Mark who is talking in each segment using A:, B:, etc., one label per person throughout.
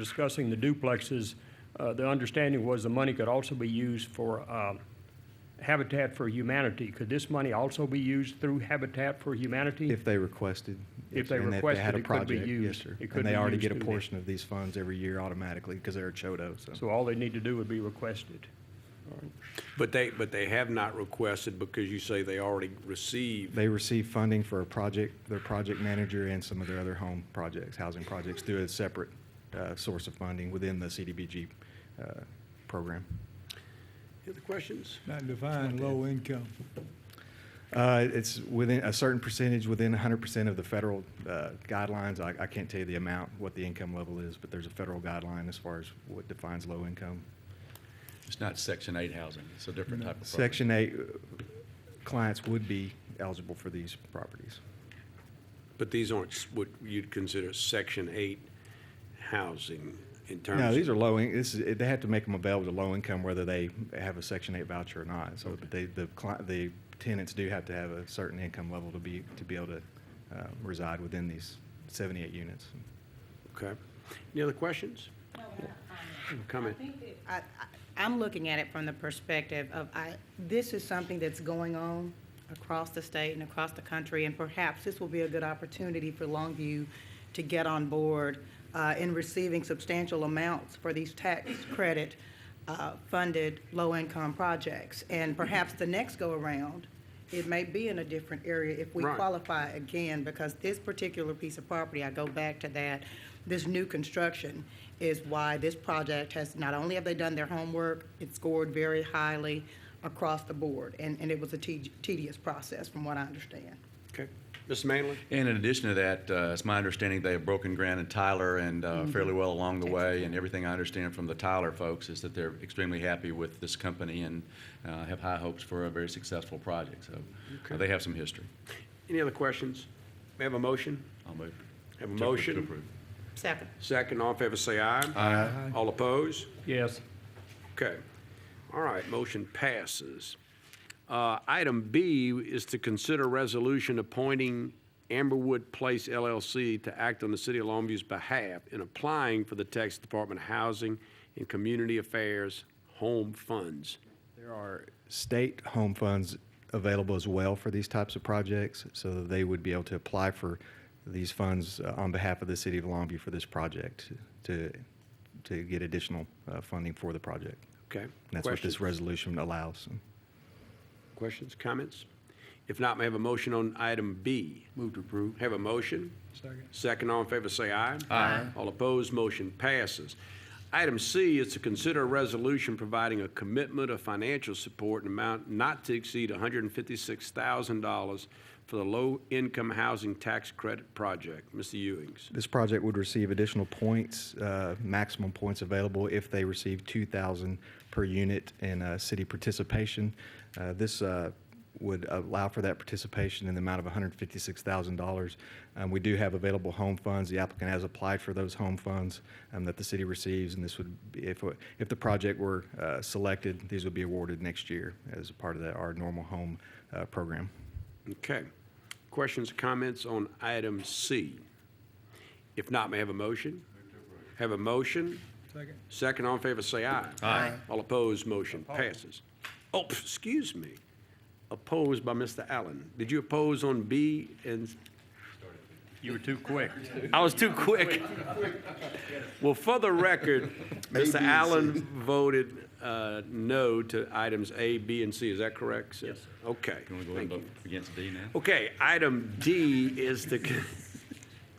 A: discussing the duplexes, uh, the understanding was the money could also be used for um, Habitat for Humanity. Could this money also be used through Habitat for Humanity?
B: If they requested.
A: If they
B: and
A: requested,
B: had a
A: it could be
B: project,
A: used.
B: Yes, sir.
A: It could
B: And
A: be
B: they already
A: used
B: get a
A: through that.
B: portion of these funds every year automatically because they're a CHOTO, so.
A: So all they need to do would be requested.
C: But they, but they have not requested because you say they already received.
B: They receive funding for a project, their project manager and some of their other home projects, housing projects, through a separate uh, source of funding within the CDBG uh, program.
C: Any other questions?
D: Not define low income.
B: Uh, It's within a certain percentage, within 100% of the federal uh, guidelines. I I can't tell you the amount, what the income level is, but there's a federal guideline as far as what defines low income.
E: It's not Section 8 housing, it's a different type of property.
B: Section 8 uh, clients would be eligible for these properties.
C: But these aren't s- what you'd consider Section 8 housing in terms.
B: No,
C: of-
B: these are low, in- this is, they have to make them available to low income whether they have a Section 8 voucher or not. So but they, the cli the tenants do have to have a certain income level to be, to be able to uh, reside within these 78 units.
C: Okay. Any other questions?
F: No, we're not commenting.
C: Comment?
F: I think that- I, I- I'm looking at it from the perspective of, I, this is something that's going on across the state and across the country, and perhaps this will be a good opportunity for Longview to get on board uh, in receiving substantial amounts for these tax credit uh, funded low-income projects. And perhaps the next go-around, it may be in a different area if we
C: Right.
F: qualify qualify again, because this particular piece of property, I go back to that, this new construction is why this project has, not only have they done their homework, it scored very highly across the board, and, and it was a te- tedious process, from what I understand.
C: Okay. Mms. Manley?
E: And in addition to that, uh, it's my understanding they have broken ground in Tyler and uh,
C: Mm-hmm.
E: fairly well along the way. And everything I understand from the Tyler folks is that they're extremely happy with this company and uh, have high hopes for a very successful project. So uh, they have some history.
C: Any other questions? May I have a motion?
E: I'll move.
C: Have a
E: to- to
C: motion?
E: approve.
F: Second.
C: Second, all in favor, say aye. Aye. All opposed?
A: Yes.
C: Okay. All right, motion passes. Uh, Item B is to consider resolution appointing Amberwood Place LLC to act on the City of Longview's behalf in applying for the Texas Department of Housing and Community Affairs Home Funds.
B: There are state home funds available as well for these types of projects, so that they would be able to apply for these funds uh, on behalf of the city of Longview for this project to, to get additional uh, funding for the project.
C: Okay?
B: And that's what
C: Questions?
B: this resolution allows.
C: Questions, comments? If not, may I have a motion on item B?
E: Move to approve.
C: Have a motion?
D: Second.
C: Second, all in favor, say aye. Aye. All opposed, motion passes. Item C is to consider a resolution providing a commitment of financial support in amount not to exceed $156,000 for the low-income housing tax credit project. Mr. Ewings.
B: This project would receive additional points, uh, maximum points available if they receive 2,000 per unit in uh, city participation. Uh, This uh, would allow for that participation in the amount of $156,000. Um, We do have available home funds. The applicant has applied for those home funds um, that the city receives, and this would, be- if, if the project were uh, selected, these would be awarded next year as a part of that, our normal home uh, program.
C: Okay. Questions, comments on item C? If not, may I have a motion? Have a motion?
D: Second.
C: Second, all in favor, say aye. Aye. All opposed, motion passes. Oh, pff, excuse me. Opposed by Mr. Allen. Did you oppose on B and?
A: You were too quick.
C: I was too quick. Well, for the record, Mr. Allen voted uh, no to items A, B, and C. Is that correct, sir? Yes. Okay,
E: You want to go
C: thank
E: ahead
C: you.
E: and vote against D now?
C: Okay, item D is the,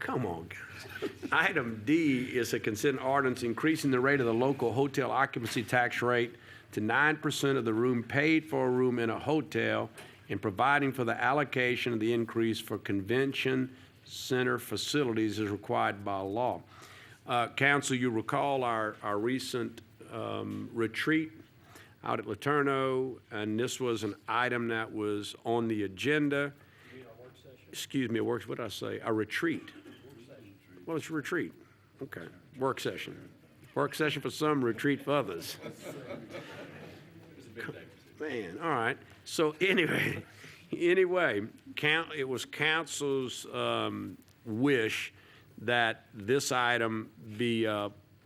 C: come on, guys. Item D is a consent ordinance increasing the rate of the local hotel occupancy tax rate to 9% of the room paid for a room in a hotel and providing for the allocation of the increase for convention center facilities as required by law. Uh, Council, you recall our, our recent um, retreat out at Laterno, and this was an item that was on the agenda. Excuse me, a work, what did I say? A retreat. Well, it's a retreat. Okay, work session. Work session for some, retreat for others. Man, all right. So anyway, anyway, count, it was council's um, wish that this item be uh,